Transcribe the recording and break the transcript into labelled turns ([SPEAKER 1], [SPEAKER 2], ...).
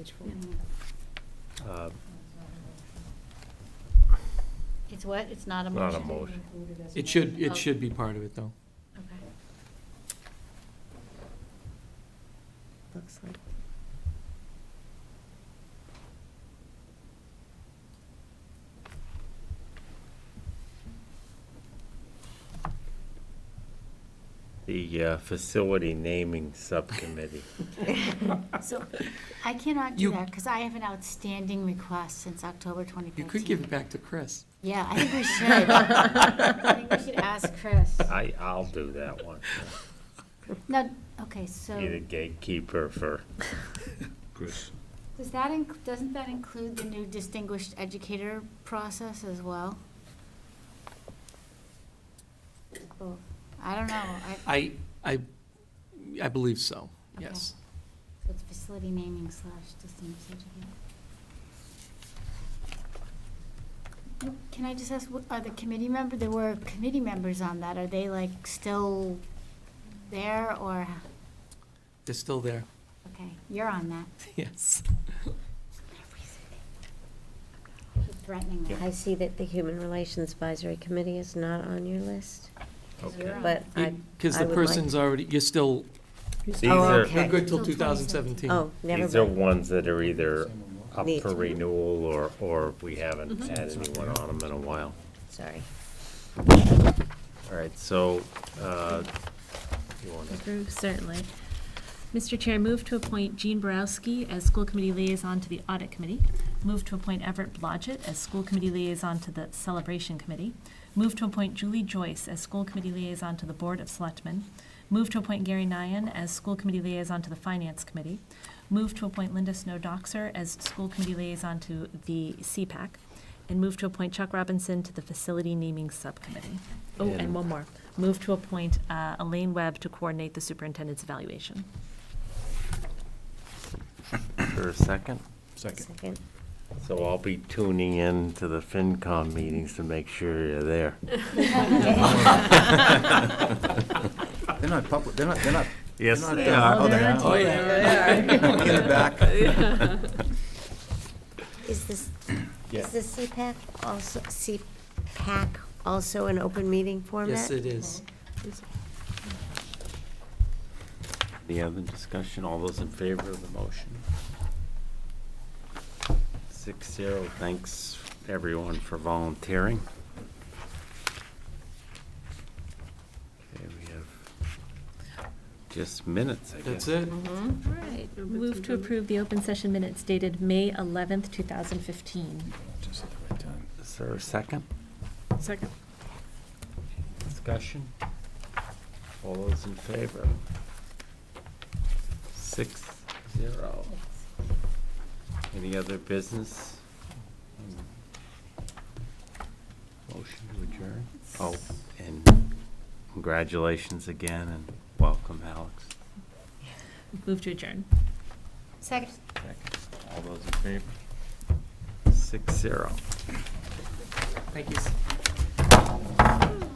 [SPEAKER 1] Page four.
[SPEAKER 2] Uh,
[SPEAKER 1] It's what? It's not a
[SPEAKER 2] Not
[SPEAKER 1] motion?
[SPEAKER 2] a motion.
[SPEAKER 3] It should,
[SPEAKER 1] Oh.
[SPEAKER 3] it should be part of it, though.
[SPEAKER 1] Okay.
[SPEAKER 4] Looks like.
[SPEAKER 2] The uh, Facility Naming Subcommittee.
[SPEAKER 1] So I cannot do
[SPEAKER 3] You-
[SPEAKER 1] that because I have an outstanding request since October 2015.
[SPEAKER 3] You could give it back to Chris.
[SPEAKER 1] Yeah, I think we should. I think we should ask Chris.
[SPEAKER 2] I, I'll do that one.
[SPEAKER 1] No, okay,
[SPEAKER 2] Be the
[SPEAKER 1] so
[SPEAKER 2] gatekeeper for,
[SPEAKER 5] Chris,
[SPEAKER 1] does that, inc- doesn't that include the new distinguished educator process as well? Both. I don't know. I-
[SPEAKER 3] I, I, I believe so, yes.
[SPEAKER 1] So It's facility naming slash distinguished educator. Nope, Can I just ask, what- are the committee member, there were committee members on that, are they like still there or,
[SPEAKER 3] They're still there,
[SPEAKER 1] okay, you're on that.
[SPEAKER 3] yes.
[SPEAKER 1] You're Threatening that.
[SPEAKER 4] I see that the Human Relations Advisory Committee is not on your list,
[SPEAKER 2] okay.
[SPEAKER 4] but I,
[SPEAKER 3] Because the
[SPEAKER 4] would like-
[SPEAKER 3] person's already, you're still,
[SPEAKER 2] These
[SPEAKER 4] Oh,
[SPEAKER 2] are,
[SPEAKER 4] okay.
[SPEAKER 3] you're good till
[SPEAKER 1] Till
[SPEAKER 3] 2017.
[SPEAKER 4] oh, never
[SPEAKER 2] these are
[SPEAKER 4] mind.
[SPEAKER 2] ones that are either up
[SPEAKER 4] Need
[SPEAKER 2] for
[SPEAKER 4] to be.
[SPEAKER 2] renewal or, or we haven't had anyone on them in a while.
[SPEAKER 4] Sorry.
[SPEAKER 2] All right, so, uh, you want to,
[SPEAKER 6] Approve, certainly. Mr. Chair, move to appoint Jean Borowski as school committee liaison to the audit committee. Move to appoint Everett Blodgett as school committee liaison to the celebration committee. Move to appoint Julie Joyce as school committee liaison to the board of selectmen. Move to appoint Gary Nyan as school committee liaison to the finance committee. Move to appoint Linda Snowdoxer as school committee liaison to the CPAC. And move to appoint Chuck Robinson to the facility naming subcommittee. Oh,
[SPEAKER 2] And-
[SPEAKER 6] and one more. Move to appoint uh, Elaine Webb to coordinate the superintendent's evaluation.
[SPEAKER 2] for a second?
[SPEAKER 5] second.
[SPEAKER 2] So I'll be tuning in to the FinCom meetings to make sure you're there.
[SPEAKER 5] They're not public, they're not, they're not.
[SPEAKER 2] Yes,
[SPEAKER 5] they're not
[SPEAKER 2] they
[SPEAKER 5] done.
[SPEAKER 2] are.
[SPEAKER 5] Oh, they are?
[SPEAKER 3] Oh, yeah.
[SPEAKER 5] In the back.
[SPEAKER 4] Is this, is the CPAC also, CPAC also an open meeting format?
[SPEAKER 3] Yes, it is.
[SPEAKER 2] Any other discussion? All those in favor of the motion? Six zero. Thanks, everyone, for volunteering. Okay, we have just minutes, I guess.
[SPEAKER 3] That's it.
[SPEAKER 6] Mm-hmm. All right, move to approve the open session minutes dated May 11th, 2015.
[SPEAKER 5] Just at the right time.
[SPEAKER 2] Is there a second?
[SPEAKER 6] Second.
[SPEAKER 2] Discussion? All those in favor? Six zero. Any other business? Motion to adjourn? Oh, and congratulations again and welcome, Alex.
[SPEAKER 6] Move to adjourn.
[SPEAKER 1] Second.
[SPEAKER 2] All those in favor? Six zero.
[SPEAKER 3] Thank you.